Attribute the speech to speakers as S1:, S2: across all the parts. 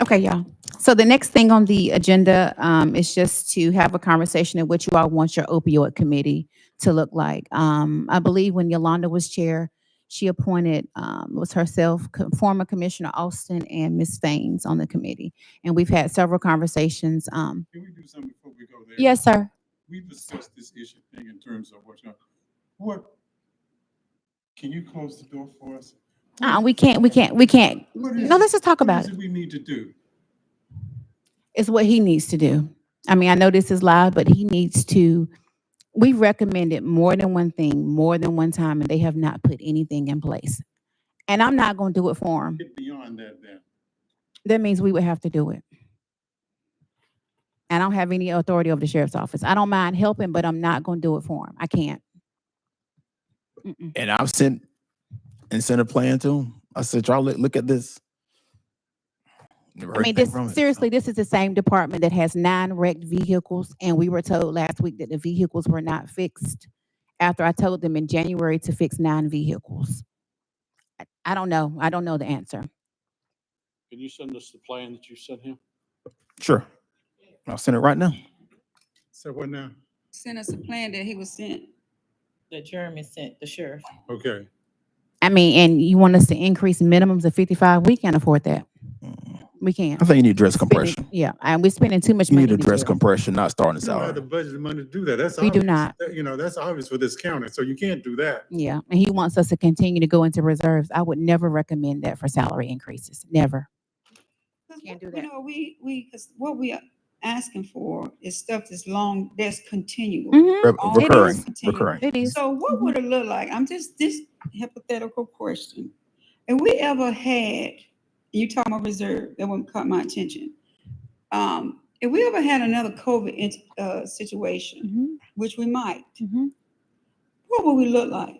S1: Okay, y'all. So the next thing on the agenda um, is just to have a conversation of what you all want your opioid committee to look like. Um, I believe when Yolanda was chair, she appointed, um, was herself, co- former Commissioner Austin and Ms. Faines on the committee. And we've had several conversations. um,
S2: Can we do something before we go there?
S1: Yes, sir.
S2: We discussed this issue thing in terms of what's going, what, can you close the door for us?
S1: Uh, we can't, we can't, we can't.
S2: What is
S1: No,
S2: it-
S1: let's just talk
S2: what
S1: about
S2: is
S1: it.
S2: it we need to do?
S1: It's what he needs to do. I mean, I know this is loud, but he needs to, we recommended more than one thing, more than one time, and they have not put anything in place. And I'm not gonna do it for him.
S2: Get beyond that then.
S1: That means we would have to do it. I don't have any authority over the sheriff's office. I don't mind helping, but I'm not gonna do it for him. I can't. Mm-mm.
S3: And I've sent and sent a plan to him. I said, y'all look, look at this. Never
S1: I
S3: heard
S1: mean,
S3: anything
S1: this,
S3: from it.
S1: seriously, this is the same department that has nine wrecked vehicles, and we were told last week that the vehicles were not fixed after I told them in January to fix nine vehicles. I- I don't know. I don't know the answer.
S4: Can you send us the plan that you sent him?
S3: Sure. I'll send it right now.
S2: So what now?
S5: sent us a plan that he was sent.
S6: that Jeremy sent the sheriff.
S2: Okay,
S1: I mean, and you want us to increase minimums of fifty-five? We can't afford that.
S3: Mm.
S1: We can't.
S3: I think you need dress
S1: Spending-
S3: compression.
S1: Yeah, and we're spending too much
S3: You
S1: money.
S3: need a
S1: in the
S3: dress
S1: jail.
S3: compression, not starting
S2: we don't have the
S3: salary.
S2: budget money to do that, that's.
S1: We do
S2: obvious.
S1: not.
S2: That- You know, that's obvious for this county, so you can't do that.
S1: Yeah, and he wants us to continue to go into reserves. I would never recommend that for salary increases, never.
S5: 'Cause
S1: Can't
S5: what-
S1: do
S5: You
S1: that.
S5: know, we, we, because what we are asking for is stuff that's long, that's continual.
S1: Mhm.
S3: Re-
S5: All
S3: Recurring,
S5: this continue.
S3: recurring.
S1: It is.
S5: So what would it look like? I'm just, this hypothetical question. If we ever had, you talking about reserve, that one caught my attention. Um, if we ever had another COVID, int- uh, situation,
S1: Mhm,
S5: which we might,
S1: mhm.
S5: what would we look like?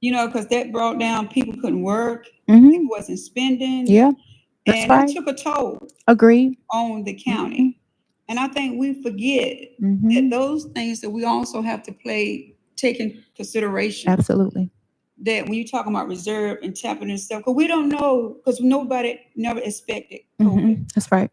S5: You know, because that brought down, people couldn't work,
S1: Mhm.
S5: people wasn't spending.
S1: Yeah, that's
S5: And
S1: right.
S5: it took a toll
S1: agreed.
S5: on the
S1: Mm-hmm.
S5: county. And I think we forget
S1: Mhm.
S5: that those things that we also have to play, take in consideration.
S1: Absolutely.
S5: That when you're talking about reserve and tapping and stuff, because we don't know, because nobody never expected COVID.
S1: Mhm. That's right.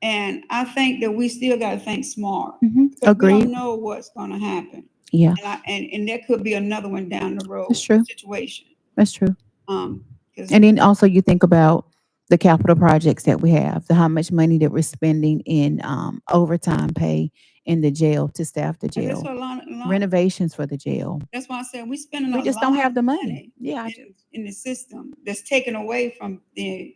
S5: And I think that we still got to think smart.
S1: Mhm.
S5: 'cause We
S1: Agreed.
S5: don't know what's going to happen.
S1: Yeah,
S5: And I, and, and there could be another one down the road.
S1: That's true.
S5: Situation.
S1: that's true.
S5: Um, 'cause-
S1: And then also you think about the capital projects that we have, the how much money that we're spending in um, overtime pay in the jail to staff the
S5: and that's
S1: jail,
S5: what a lot, a lot-
S1: renovations for the jail.
S5: that's why I said we spending a
S1: We
S5: lot.
S1: just don't have the
S5: of
S1: money. Yeah, I-
S5: in, in the system that's taken away from the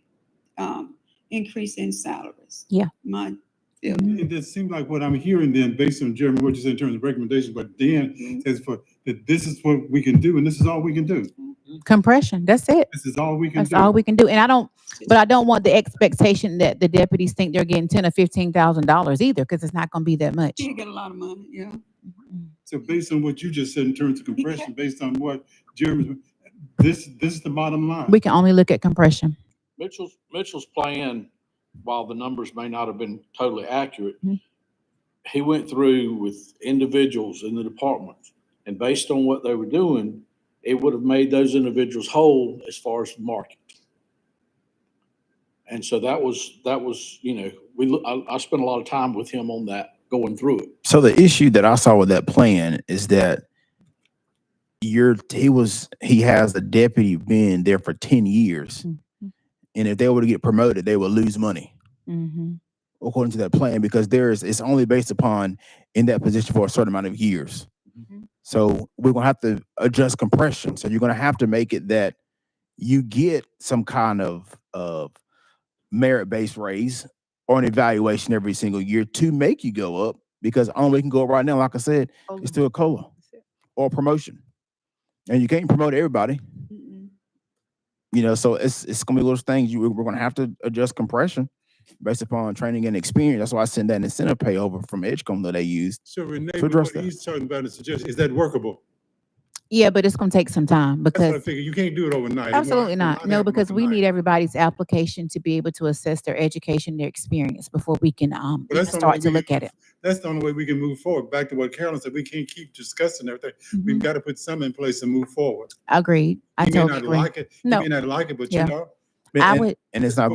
S5: um, increase in salaries.
S1: Yeah.
S5: My,
S1: Mhm.
S2: It does seem like what I'm hearing then, based on Jeremy, what you said in terms of recommendations, but
S1: Mm-hmm.
S2: Dan says for, that this is what we can do and this is all we can do.
S1: compression, that's it.
S2: This is all we can do.
S1: That's all we can do. And I don't, but I don't want the expectation that the deputies think they're getting ten or fifteen thousand dollars either, because it's not gonna be that much.
S5: you get a lot of money, yeah. Mm-hmm.
S2: So based on what you just said in terms of compression, based on what Jeremy, this, this is the bottom line.
S1: We can only look at compression.
S4: Mitchell's, Mitchell's plan, while the numbers may not have been totally accurate,
S1: Mhm.
S4: he went through with individuals in the departments. And based on what they were doing, it would have made those individuals whole as far as the market. And so that was, that was, you know, we, loo- I, I spent a lot of time with him on that, going through it.
S3: So the issue that I saw with that plan is that you're he was he has a deputy been there for 10 years.
S1: Mhm.
S3: And if they were to get promoted, they would lose money
S1: Mhm.
S3: according to that plan because there's it's only based upon in that position for a certain amount of years.
S1: Mhm.
S3: So we're gonna have to adjust compression. So you're gonna have to make it that you get some kind of of merit based raise or an evaluation every single year to make you go up because only way you can go up right now, like I said,
S1: Mm-hmm.
S3: is through a cola or a promotion. And you can't promote everybody,
S5: Mm-mm.
S3: you know. So it's it's gonna be those things you we're gonna have to adjust compression based upon training and experience. That's why I sent that incentive pay over from Edgecombe that they used.
S2: So Renee,
S3: to
S2: what
S3: address that.
S2: he's talking about is suggest, is that workable?
S1: Yeah, but it's gonna take some time
S2: That's what I
S1: because
S2: figure. You can't do it overnight. It won't-
S1: Absolutely
S2: it
S1: not.
S2: won't
S1: No,
S2: happen
S1: because we
S2: overnight.
S1: need everybody's application to be able to assess their education, their experience before we can um
S2: Well,
S1: even
S2: that's the only
S1: start to
S2: way we
S1: look
S2: can-
S1: at it.
S2: That's the only way we can move forward. Back to what Carolyn said, we can't keep discussing everything. We've
S1: Mhm.
S2: got to put some in place and move forward.
S1: Agreed. I
S2: You may
S1: totally
S2: not
S1: agree.
S2: like it, you
S1: No,
S2: may not like it, but
S1: Yeah.
S2: you know.
S1: I
S3: and-
S1: would.
S3: and it's not